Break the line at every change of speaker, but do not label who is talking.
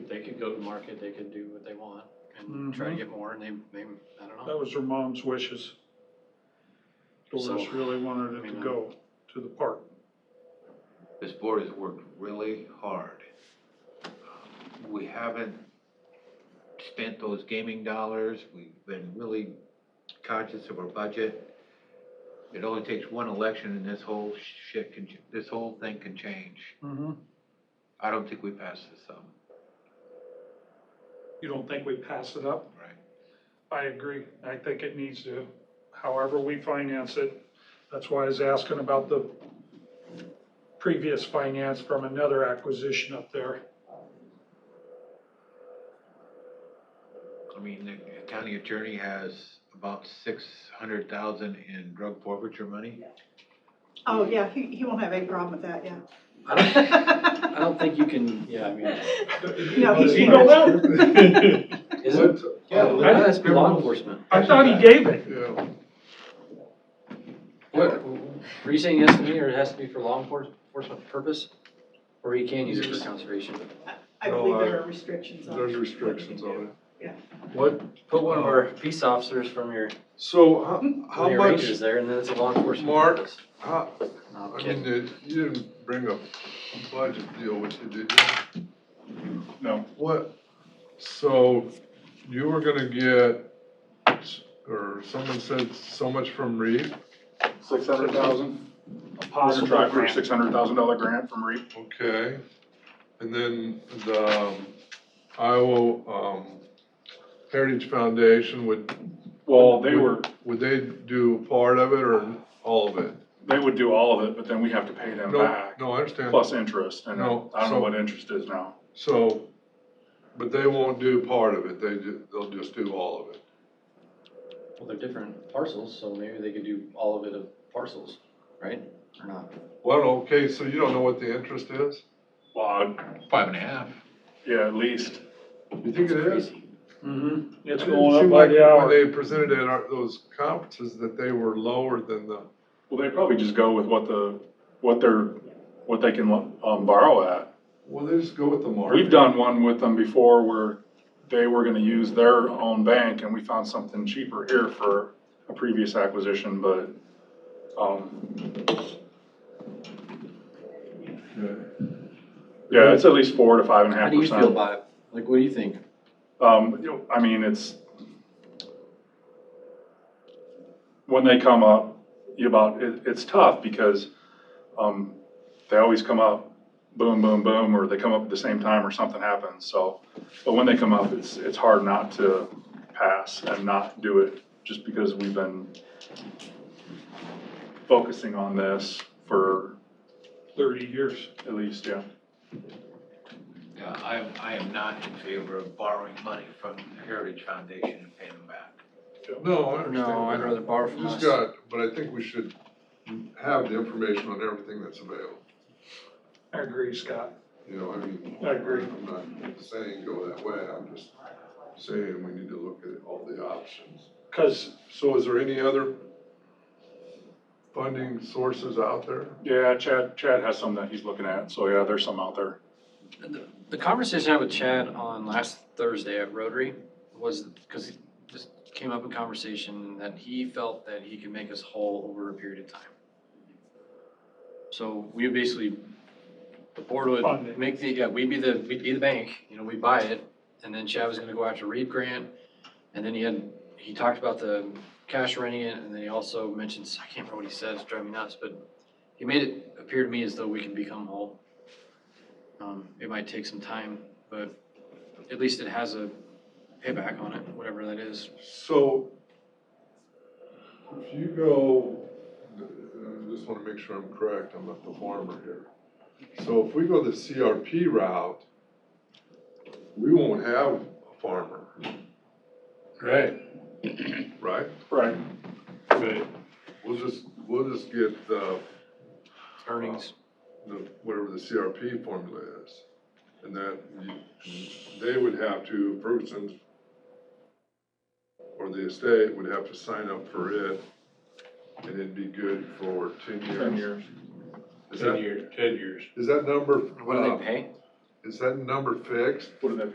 go to market, they can do what they want
Mm-hmm.
and try to get more and they, they, I don't
That
know.
was her mom's wishes. Doris
So-
really wanted it to
uh,
go to the park.
This board has worked really hard. Um, We haven't spent those gaming dollars, we've been really conscious of our budget. It only takes one election and this whole shit can, this whole thing can change.
Mm-hmm.
I don't think we passed this up,
You don't think we pass it up?
right?
I agree. I think it needs to, however we finance it. That's why I was asking about the previous finance from another acquisition up there.
I mean, the county attorney has about six hundred thousand in drug forfeiture money.
Oh, yeah, he, he won't have any problem with that,
I don't, I
yeah.
don't think you can, yeah, I mean,
No, he's-
You don't know?
is it? Yeah,
I-
that's law enforcement.
I thought he gave it.
Yeah,
What, were you saying it has to be, or it has to be for law enfor- enforcement purpose? Or you can use it for conservation?
I believe there are restrictions on
there's restrictions on it.
What, put one of our peace officers from your,
So how, how
from your
much,
rangers there and then it's a law enforcement
Mark?
purpose.
how,
No, I'm
I
kidding.
mean, uh, you didn't bring up a budget deal with you, did you?
No.
What, so you were gonna get, or someone said so much from Reeve,
Six hundred thousand,
A
we're gonna
possible
try for a
grant.
six hundred thousand dollar grant from REAP.
okay? And then the um, Iowa, um, Heritage Foundation, would,
Well, they were,
would they do part of it or all of it?
they would do all of it, but then we have to pay them
No,
back,
no, I understand.
plus interest, and I
No,
don't
so-
know what interest is now.
So, but they won't do part of it, they ju, they'll just do all of it.
Well, they're different parcels, so maybe they could do all of it of parcels, right? Or not?
Well, okay, so you don't know what the interest is?
Well, I'd-
Five and a half.
yeah, at least,
You think it Mm-hmm. is?
Crazy.
Mhm. It's
It
going
seemed
up by
like
the
When
hour.
they presented at our, those conferences, that they were lower than the,
well, they probably just go with what the, what they're, what they can, um, borrow at.
well, they just go with the market.
We've done one with them before where they were gonna use their own bank, and we found something cheaper here for a previous acquisition, but, um,
Yeah.
yeah, it's at least four to five and a half
How do
percent.
you feel about it? Like, what do you think?
Um, you know, I mean, it's, when they come up, you about, it, it's tough because, um, they always come up, boom, boom, boom, or they come up at the same time or something happens, so. But when they come up, it's, it's hard not to pass and not do it, just because we've been focusing on this for
Thirty years.
at least, yeah.
Yeah, I am, I am not in favor of borrowing money from the Heritage Foundation and paying them back.
No, I understand.
No, I'd rather borrow from
Just
us.
got, but I think we should have the information on everything that's available,
I agree, Scott.
you know, I mean.
I agree.
I'm not saying go that way, I'm just saying we need to look at all the options.
Cause
So is there any other funding sources out there?
Yeah, Chad, Chad has some that he's looking at, so yeah, there's some out there.
The- The conversation I had with Chad on last Thursday at Rotary was, because it just came up in conversation that he felt that he could make us whole over a period of time. So we would basically, the board
Fund it.
would make the, yeah, we'd be the, we'd be the bank, you know, we'd buy it. And then Chad was gonna go after Reed Grant, and then he had, he talked about the cash renting it, and then he also mentioned, I can't remember what he said, it's driving me nuts, but he made it appear to me as though we can become whole. Um, it might take some time, but at least it has a payback on it, whatever that is.
So if you go, I just want to make sure I'm correct, I'm not the farmer here. So if we go the CRP route, we won't have a farmer,
Right.
right?
Right.
Right.
We'll just, we'll just get the,
Earnings,
the- whatever the CRP formula is. And that, you- they would have to, Ferguson's or the estate would have to sign up for it, and it'd be good for ten years.
Ten years.
Is that-
years, ten years.
Is that number,
what do
uh,
they pay?
is that number fixed?
What did that